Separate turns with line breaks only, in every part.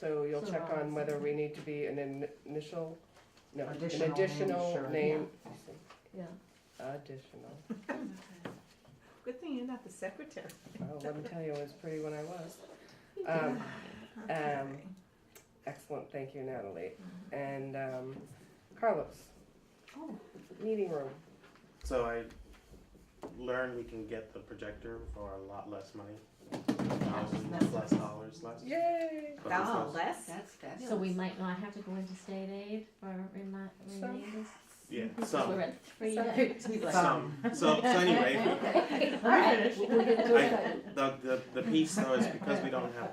so you'll
So
check on
Robinson.
whether we need to be an in- initial, no, an
Additional name,
additional
sure.
name.
yeah.
Additional.
Good thing you're not the secretary.
Oh, let me tell you, it was pretty when I was. Um,
Okay.
Excellent, thank you Natalie. And um, Carlos,
Oh,
meeting room.
So I learned we can get the projector for a lot less money. Thousands less dollars less.
Yay!
But it's
oh,
less-
less?
That's fabulous.
So we might not have to go into state aid for remi-
Some.
remainders?
Yeah,
Because we're
some,
at three.
Some.
some. So, so anyway,
Okay,
Let
all
me
right.
finish. We'll get to
I,
it.
the, the, the piece though is because we don't have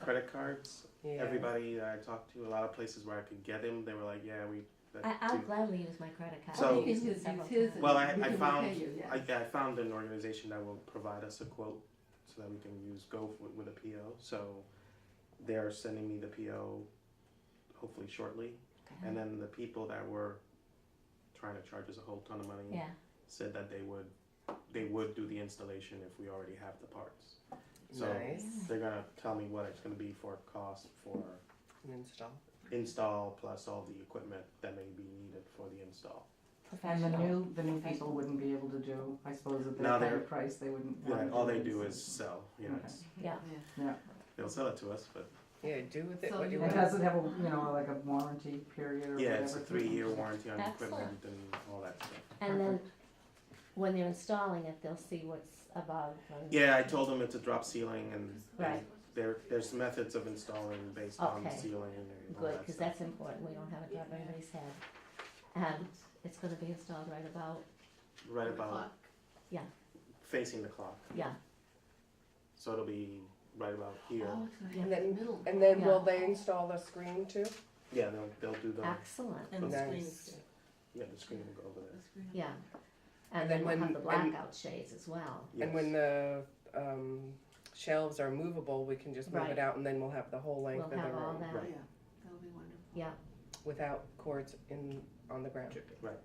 credit cards,
Yeah.
everybody that I talked to, a lot of places where I could get them, they were like, yeah, we. that
I, I'll
too."
gladly use my credit card.
So-
I've used it several times.
Well, I- I found- I,
found.
I found an organization that will provide us a quote so that we can use, go f- with a PO. So they're sending me the PO hopefully shortly. And then the people that were trying to charge us a whole ton of money
Yeah,
said that they would, they would do the installation if we already have the parts. So
Nice.
they're gonna tell me what it's gonna be for cost for
And install.
install plus all the equipment that may be needed for the install.
And the
professional.
new, the new people wouldn't be able to do, I suppose, at that
No,
kind
they're-
of price, they wouldn't. wanna
Yeah, all they
it.
do is sell, you know, it's- they'll sell it to us, but
Yeah, do with it
So
what you
you-
It
want.
doesn't have a, you know, like a warranty period or whatever.
yeah, it's a three-year warranty on
That's
equipment and all that stuff.
And then when they're installing it, they'll see what's above. and-
Yeah, I told them it's a drop ceiling and
Right.
there, there's methods of installing based on the
Okay.
ceiling and all
Good,
that
because
stuff.
that's important. We don't have it above anybody's head. And it's gonna be installed right about,
Right about facing the clock.
yeah,
So it'll be right about here.
Oh,
Oh.
And then middle.
And then will
Yeah.
they install the screen too?
Yeah, they'll, they'll do the,
excellent.
And the
Nice.
screen's good.
yeah, the screen will go over there.
The screen.
Yeah.
And
And
then
then we'll
when-
have the
and-
blackout shades as well.
And when the um, shelves are movable, we can just move it
Right.
out and then we'll have the whole
We'll
length of the
have all
room
that,
Right.
Yeah, that'll be wonderful.
yeah,
without cords in, on the ground.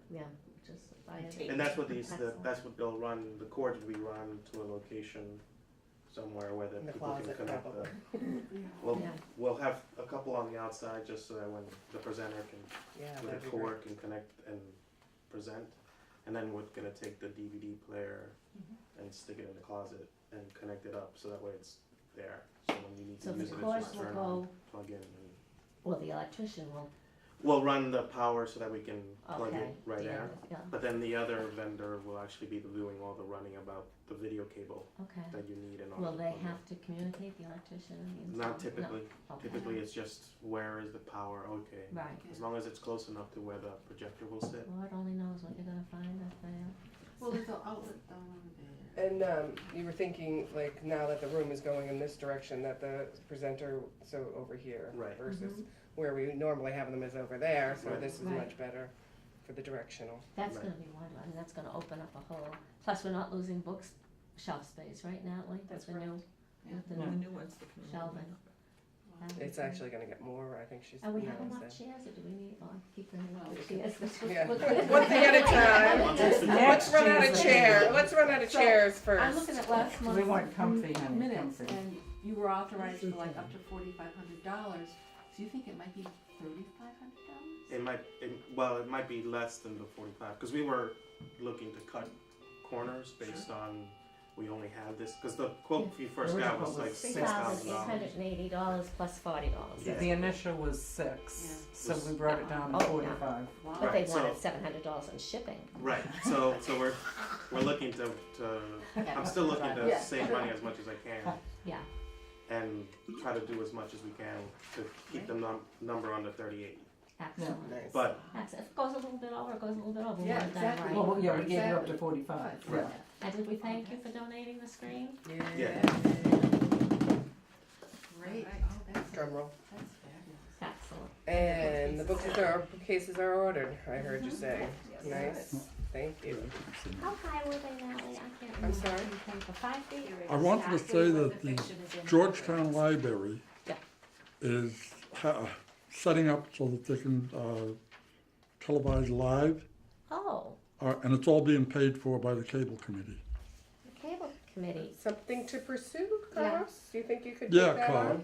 yeah, just by.
And
a-
tape.
And that's what these, the,
Excellent.
that's what they'll run, the cords will be run to a location somewhere where the
In the
people can
closet,
connect the.
probably.
We'll,
Yeah.
we'll have a couple on the outside just so that when the presenter can,
Yeah,
with
that'd
a
be great.
cord can connect and present. And then we're gonna take the DVD player
Mm-hmm.
and stick it in the closet and connect it up so that way it's there. So when you need
So
to
the
use it, it's
cords
just
will
turn on,
go,
plug in and.
well, the electrician will,
We'll run the power so that we can plug
okay.
it right
the
there.
other- Yeah,
But then the other vendor will actually be doing all the running about the video cable
okay.
that you need and all.
Will
the
they
plugging.
have to communicate, the electrician and the installer?
Not typically.
No, okay.
Typically, it's just where is the power? Okay.
Right,
As long as it's close enough to where the projector will sit.
Lord only knows what you're gonna find up there.
Well, there's an outlet down there.
And um, you were thinking, like, now that the room is going in this direction, that the presenter, so over here
Right.
versus where we normally have them is over there, so
Right.
this is
Mm-hmm. Right. Mm-hmm.
much better for the directional.
That's
Right.
gonna be wonderful, I mean, that's gonna open up a whole, plus we're not losing books shelf space, right, Natalie? With
That's
the new-
Yeah.
With the
Yeah.
new,
new ones. that come in.
Sheldon.
Wow.
It's actually going to get more. I think she's.
and we
no,
have enough
it's-
chairs, or do we need, oh, I keep bringing
Well,
up
we
the
can-
chairs.
Yeah. One thing at a time.
Once it's finished-
Let's run out of
Next
chair.
Tuesday.
Let's run out of
So,
chairs
I'm
first.
looking at last month's.
We want comfy, honey,
minutes,
comfy.
and you were authorized for like up to forty-five hundred dollars, so you think it might be thirty-five hundred dollars?
It might, it, well, it might be less than the 45 because we were looking to cut corners based on we only have this because the quote you first got was like six thousand dollars.
dollars plus forty dollars.
Yeah.
The initial was six, so we brought it down to
Oh, yeah.
forty-five.
Wow.
But they
Right, so-
wanted seven hundred dollars on shipping.
Right. So, so we're we're looking to, to I'm still looking to
Yeah.
save money as much as I can.
Yeah.
And try to do as much as we can to keep the num- number under 38.
Excellent.
Nice.
But
Excellent. If it goes a little bit over, it goes a little bit over. We
Yeah,
want that
exactly.
right.
Well, yeah, we gave it up to
Exactly.
forty-five, yeah.
And did we thank you for donating the screen?
yeah,
Great,
Alright.
oh, that's, that's
Drum roll.
fabulous.
Excellent.
And the books are cases are ordered. I heard you say. Nice. Thank you.
How high were they, Natalie? I can't remember.
sorry?
For five feet or?
I wanted to say that the Georgetown Library
Yeah.
is ha- setting up so that they can uh, televise live,
Oh,
uh, and it's all being paid for by the cable committee.
the cable committee.
Something to pursue,
Yeah.
Carlos? Do you think you could
Yeah,
take that
Carl.
on?